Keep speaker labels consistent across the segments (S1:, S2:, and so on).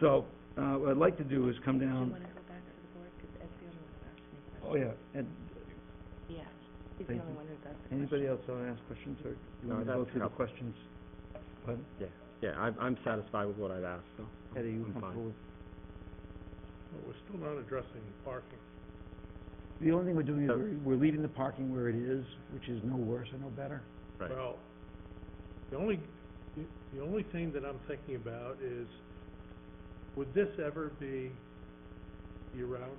S1: So, uh, what I'd like to do is come
S2: Do you
S1: down,
S2: wanna go back to the board, 'cause Ed's the only one who asked me questions.
S1: oh, yeah, and
S2: Yeah, he's the
S1: Oh, Thank
S2: only
S1: you.
S2: one who's asked the
S1: anybody
S2: question.
S1: else want to ask questions, or you
S3: No,
S1: want me to go
S3: that's
S1: through the
S3: helpful.
S1: questions? Pardon?
S3: Yeah, I'm, I'm satisfied with what I've asked, so.
S1: Eddie, you
S3: I'm fine.
S1: comfortable with?
S4: Well, we're still not addressing parking.
S1: The only thing we're doing is
S3: So-
S1: we're- we're leaving the parking where it is, which is no worse and no better.
S3: Right.
S4: Well, the only, the only thing that I'm thinking about is, would this ever be year-round?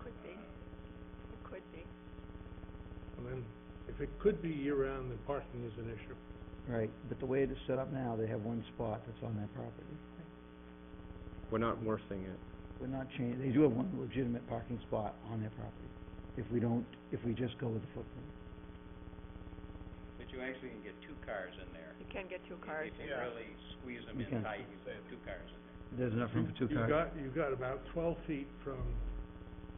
S2: Could be, it could be.
S4: And then, if it could be year-round, then parking is an issue.
S1: Right. But the way it is set up now, they have one spot that's on their property.
S3: We're not worsening it.
S1: We're not changing, they do have one legitimate parking spot on their property, if we don't, if we just go with the footprint.
S5: But you actually can get two cars in there.
S2: You can get two
S5: If you really squeeze them
S1: You
S5: in
S1: can.
S5: tight, you can put two cars in there.
S1: There's enough room for two
S4: You've
S1: cars.
S4: got, you've got about twelve feet from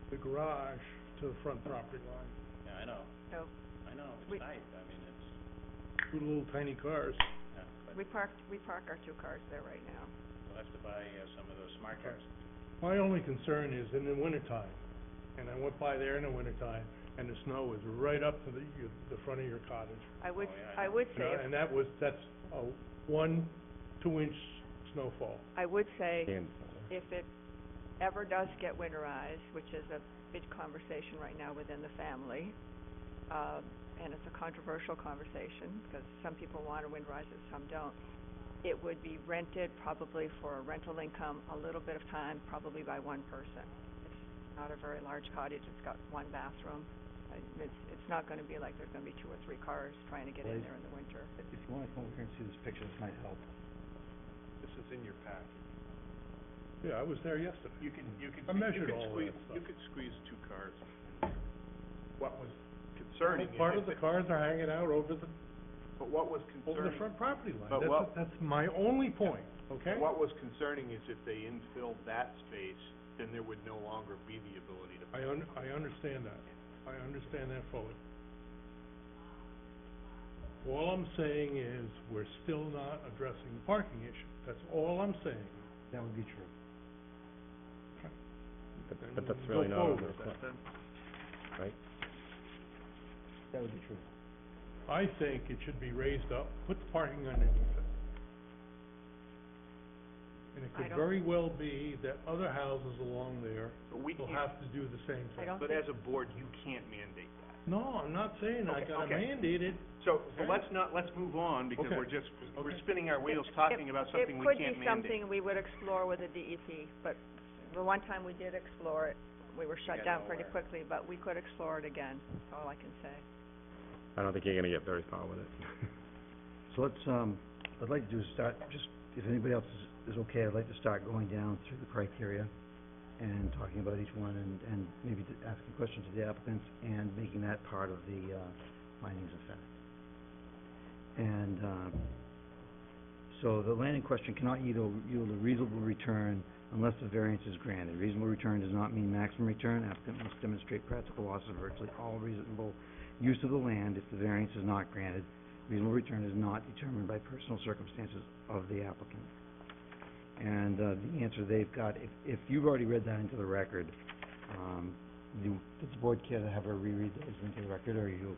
S4: the garage to the front property line,
S5: Yeah, I know,
S2: so
S5: I know,
S2: Oh. We-
S5: it's tight, I mean, it's,
S4: two little tiny cars.
S5: yeah, but
S2: we parked, we park our two cars there right now.
S5: we'll have to buy uh, some of those smart cars.
S4: My only concern is in the wintertime, and I went by there in the wintertime, and the snow was right up to the, your- the front of your cottage.
S2: I would,
S5: Oh, yeah, I
S2: I
S5: know.
S2: would
S4: You
S2: say,
S4: know,
S2: if-
S4: And that was, that's a one, two-inch snowfall.
S2: I would say,
S3: And-
S2: if it ever does get winterized, which is a big conversation right now within the family, um, and it's a controversial conversation, because some people want to winterize it, some don't, it would be rented probably for a rental income, a little bit of time, probably by one person. It's not a very large cottage, it's got one bathroom. I- It's, it's not going to be like there's going to be two or three cars trying to get in
S1: Right.
S2: there in the winter.
S1: If you wanna come over here and see this picture, this might help.
S4: This is in your pack. Yeah, I was there yesterday. You can, you can. I measured all of that stuff.
S6: could squeeze two cars. What was concerning
S4: Part of the cars are hanging out over the,
S6: But what was
S4: over the front property line.
S6: But
S4: That's,
S6: what-
S4: that's my only point, okay?
S6: What was concerning is if they infilled that space, then there would no longer be the ability to.
S4: I un- I understand that. I understand that fully. All I'm saying is, we're still not addressing the parking issue. That's all I'm saying.
S1: That would be true.
S3: But,
S4: And
S3: but that's
S4: we'll
S3: really
S4: go
S3: not on
S4: forward
S3: the
S4: with that
S3: request,
S4: then.
S3: right?
S1: That would be true.
S4: I think it should be raised up, put the parking underneath it. And it
S2: I
S4: could
S2: don't-
S4: very well be that other houses along there
S6: But we
S4: will
S6: can't,
S4: have to do the same
S2: I
S4: thing.
S2: don't
S6: but
S2: think,
S6: as a board, you can't mandate that.
S4: No, I'm not saying I
S6: Okay,
S4: gotta
S6: okay.
S4: mandate it.
S6: So, so let's not, let's move on because
S4: Okay.
S6: we're just, we're
S4: Okay.
S6: spinning our wheels
S2: It- it-
S6: talking about
S2: it
S6: something we
S2: could be
S6: can't mandate.
S2: something we would explore with the DEP, but the one time we did explore it, we were shut
S5: got
S2: down pretty
S5: nowhere.
S2: quickly, but we could explore it again, that's all I can say.
S3: I don't think you're gonna get very far with it.
S1: So let's, um, what I'd like to do is start, just, if anybody else is, is okay, I'd like to start going down through the criteria and talking about each one and, and maybe to- asking questions to the applicants and making that part of the, uh, findings of fact. And, um, so the land in question cannot yield, yield a reasonable return unless the variance is granted. Reasonable return does not mean maximum return. Applicant must demonstrate practical loss of virtually all reasonable use of the land if the variance is not granted. Reasonable return is not determined by personal circumstances of the applicant. And, uh, the answer they've got, if, if you've already read that into the record, um, you, does the board care to have her reread those into the record, or are you,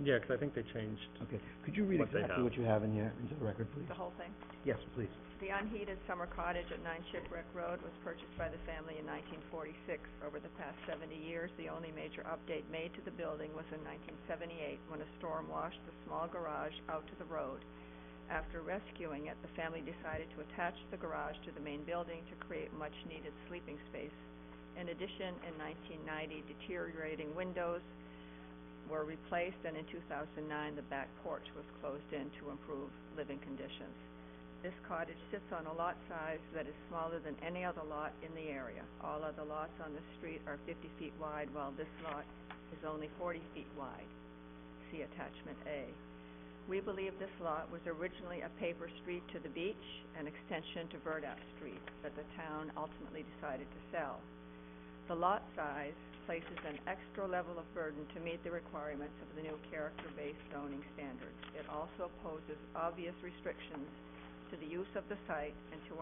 S3: Yeah, 'cause I think they changed,
S1: okay, could you read
S3: What they
S1: exactly
S3: have.
S1: what you have in here, into the record, please?
S2: The whole thing?
S1: Yes, please.
S2: The unheated summer cottage at Nine Shipwreck Road was purchased by the family in nineteen forty-six. Over the past seventy years, the only major update made to the building was in nineteen seventy-eight, when a storm washed the small garage out to the road. After rescuing it, the family decided to attach the garage to the main building to create much-needed sleeping space. In addition, in nineteen ninety, deteriorating windows were replaced, and in two thousand nine, the back porch was closed in to improve living conditions. This cottage sits on a lot size that is smaller than any other lot in the area. All other lots on the street are fifty feet wide, while this lot is only forty feet wide. See attachment A. We believe this lot was originally a paper street to the beach, an extension to Verdat Street, that the town ultimately decided to sell. The lot size places an extra level of burden to meet the requirements of the new character-based zoning standards. It also poses obvious restrictions to the use of the site and to our